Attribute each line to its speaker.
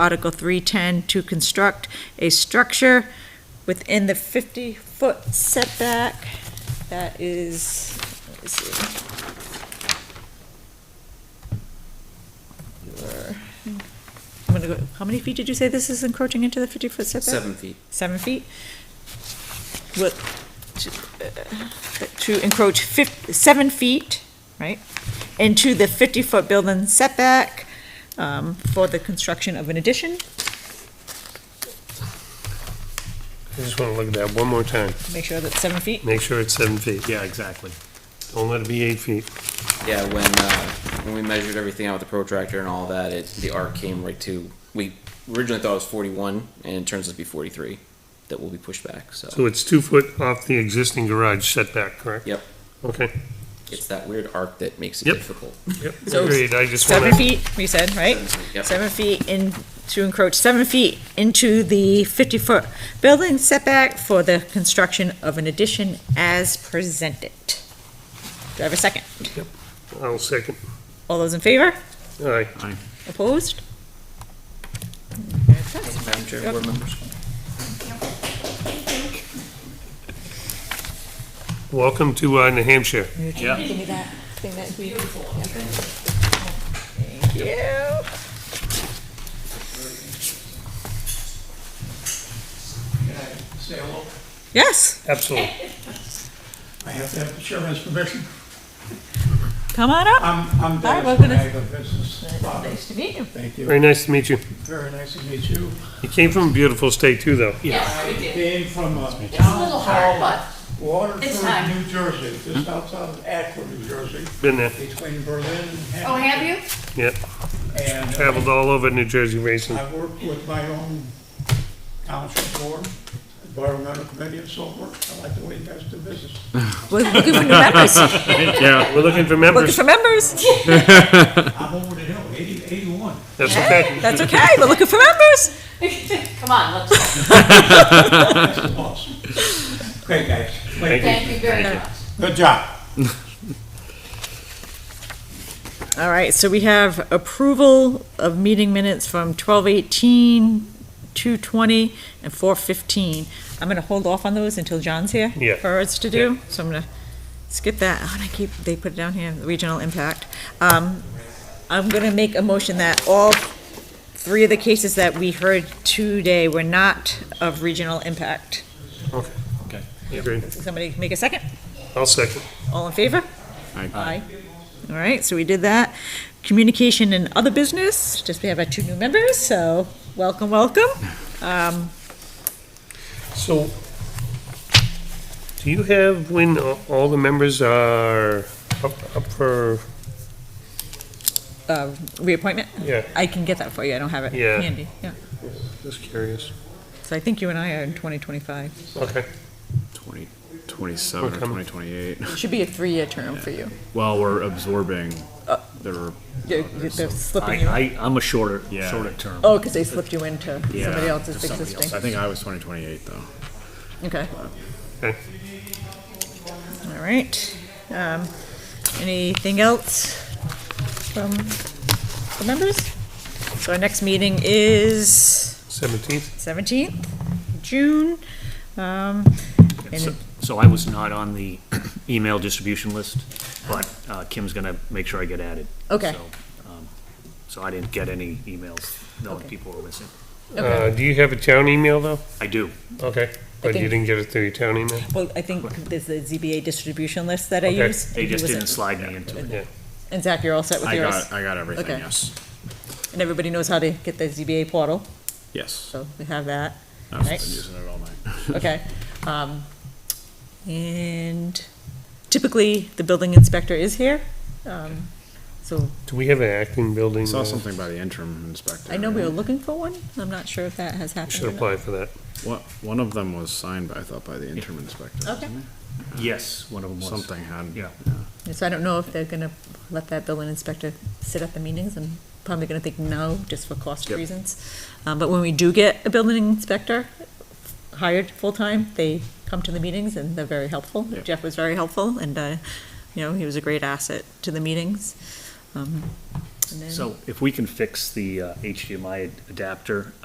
Speaker 1: Article 310, to construct a structure within the 50-foot setback. That is, let me see. Your- I'm gonna go, how many feet did you say this is encroaching into the 50-foot setback?
Speaker 2: Seven feet.
Speaker 1: seven feet, with, to, uh, to encroach fif, seven feet, right, into the fifty-foot building setback, um, for the construction of an addition.
Speaker 3: I just want to look at that one more time.
Speaker 1: Make sure that's seven feet.
Speaker 3: Make sure it's seven feet. Yeah, exactly. Don't let it be eight feet.
Speaker 2: Yeah, when, uh, when we measured everything out with the protractor and all that, it, the arc came right to, we originally thought it was forty-one, and it turns out to be forty-three that will be pushed back, so
Speaker 3: So it's two foot off the existing garage setback, correct?
Speaker 2: Yep.
Speaker 3: Okay,
Speaker 2: it's that weird arc that makes it
Speaker 3: Yep.
Speaker 2: difficult.
Speaker 3: yep,
Speaker 1: So
Speaker 3: agreed. I just
Speaker 1: Seven
Speaker 3: want to,
Speaker 1: feet, we said, right?
Speaker 2: Yep.
Speaker 1: Seven feet in, to encroach seven feet into the fifty-foot building setback for the construction of an addition as presented. Do I have a second?
Speaker 3: I'll second.
Speaker 1: All those in favor?
Speaker 3: All right,
Speaker 1: Opposed?
Speaker 2: Madam Chair, board members.
Speaker 3: welcome to uh, New Hampshire.
Speaker 1: Give me that thing that we. Thank you.
Speaker 4: Say hello.
Speaker 1: Yes,
Speaker 3: Absolutely.
Speaker 4: I have to have the chairman's permission.
Speaker 1: come on up.
Speaker 4: I'm, I'm
Speaker 1: Hi,
Speaker 4: Dennis
Speaker 1: welcome to-
Speaker 4: Benega, business father.
Speaker 1: Nice to meet you.
Speaker 4: Thank you.
Speaker 3: Very nice to meet you.
Speaker 4: Very nice to meet you.
Speaker 3: You came from a beautiful state too, though.
Speaker 4: I came from uh, a
Speaker 5: A
Speaker 4: town
Speaker 5: little hard,
Speaker 4: called
Speaker 5: Hmm? but It's
Speaker 4: Waterford,
Speaker 5: time.
Speaker 4: New Jersey, just outside of Akron, New Jersey,
Speaker 3: Been there,
Speaker 4: between Berlin and
Speaker 5: oh, have you?
Speaker 3: yep.
Speaker 4: Hamilton. And
Speaker 3: Traveled all over New Jersey racing.
Speaker 4: I worked with my own township board, environmental committee and so forth. I like the way you guys do business.
Speaker 1: We're looking for new members.
Speaker 3: Yeah. We're looking for
Speaker 1: Looking
Speaker 3: members.
Speaker 1: for members.
Speaker 4: I'm over the hill, 80 81.
Speaker 3: That's okay.
Speaker 1: That's okay. We're looking for members.
Speaker 5: Come on, let's,
Speaker 4: That's the boss. Great, guys. Great.
Speaker 5: thank you very much.
Speaker 4: Good job.
Speaker 1: All right, so we have approval of meeting minutes from twelve eighteen, two twenty, and four fifteen. I'm gonna hold off on those until John's here.
Speaker 3: Yeah.
Speaker 1: For us to do, so I'm gonna skip that. Oh, and I keep, they put it down here, regional impact. Um, I'm gonna make a motion that all three of the cases that we heard today were not of regional impact.
Speaker 3: Agreed.
Speaker 1: Somebody make a second?
Speaker 3: I'll second.
Speaker 1: All in favor? Aye. All right, so we did that. Communication and other business, just we have our two new members, so welcome, welcome. Um,
Speaker 3: So, do you have when a- all the members are up, up for,
Speaker 1: uh, Reappointment?
Speaker 3: yeah,
Speaker 1: I can get that for you, I don't have it
Speaker 3: Yeah.
Speaker 1: handy. Yeah.
Speaker 3: just curious.
Speaker 1: So I think you and I are in 2025.
Speaker 3: Okay,
Speaker 6: 2027
Speaker 3: We're
Speaker 6: or
Speaker 3: coming.
Speaker 6: 2028.
Speaker 1: It should be a three-year term for you.
Speaker 6: While we're absorbing
Speaker 1: Uh,
Speaker 6: the,
Speaker 1: They're they're slipping you,
Speaker 7: I, I, I'm a shorter,
Speaker 6: Yeah.
Speaker 7: shorter term.
Speaker 1: oh, because they slipped you into
Speaker 6: yeah,
Speaker 1: somebody else's
Speaker 6: to somebody else. I
Speaker 1: existing.
Speaker 6: think I was 2028 though.
Speaker 1: Okay,
Speaker 3: okay.
Speaker 1: all right. Um, Anything else from the members? So our next meeting is?
Speaker 3: Seventeenth,
Speaker 1: seventeenth, June. Um,
Speaker 7: So-
Speaker 1: and
Speaker 7: So I was not on the email distribution list, but uh, Kim's gonna make sure I get added.
Speaker 1: Okay.
Speaker 7: So, um, So I didn't get any emails knowing
Speaker 1: Okay.
Speaker 7: people were missing.
Speaker 1: Okay.
Speaker 3: uh, do you have a town email though?
Speaker 7: I do.
Speaker 3: Okay, but you
Speaker 1: think-
Speaker 3: didn't get it through your town email?
Speaker 1: Well, I think there's the ZBA distribution list that I
Speaker 3: Okay.
Speaker 1: use.
Speaker 7: They just
Speaker 1: Was it-
Speaker 7: didn't slide me into it.
Speaker 1: And Zach, you're all set with
Speaker 6: I
Speaker 1: yours?
Speaker 6: got I got everything.
Speaker 1: Okay.
Speaker 6: Yes.
Speaker 1: And everybody knows how to get the ZBA portal,
Speaker 6: Yes.
Speaker 1: so we have that,
Speaker 6: I've
Speaker 1: Nice.
Speaker 6: been using it all night.
Speaker 1: okay? Um, and typically, the building inspector is here. Um, so
Speaker 3: Do we have an acting building?
Speaker 6: I saw
Speaker 3: uh,
Speaker 6: something by the interim inspector.
Speaker 1: I know we were looking for one. I'm not sure if that has happened.
Speaker 3: Should
Speaker 1: or not.
Speaker 3: apply for that.
Speaker 6: One, one of them was signed by I thought by the interim inspector.
Speaker 1: Okay.
Speaker 6: wasn't
Speaker 7: Yes, one of them
Speaker 6: it?
Speaker 7: was.
Speaker 6: Something had.
Speaker 7: Yeah.
Speaker 1: So I don't know if they're gonna let that building inspector sit at the meetings, I'm probably gonna think no, just for cost
Speaker 6: Yep.
Speaker 1: reasons. Um, but when we do get a building inspector hired full-time, they come to the meetings and they're very helpful.
Speaker 6: Yep.
Speaker 1: Jeff was very helpful and, uh, you know, he was a great asset to the meetings. Um, And then-
Speaker 7: So if we can fix the uh, HDMI adapter,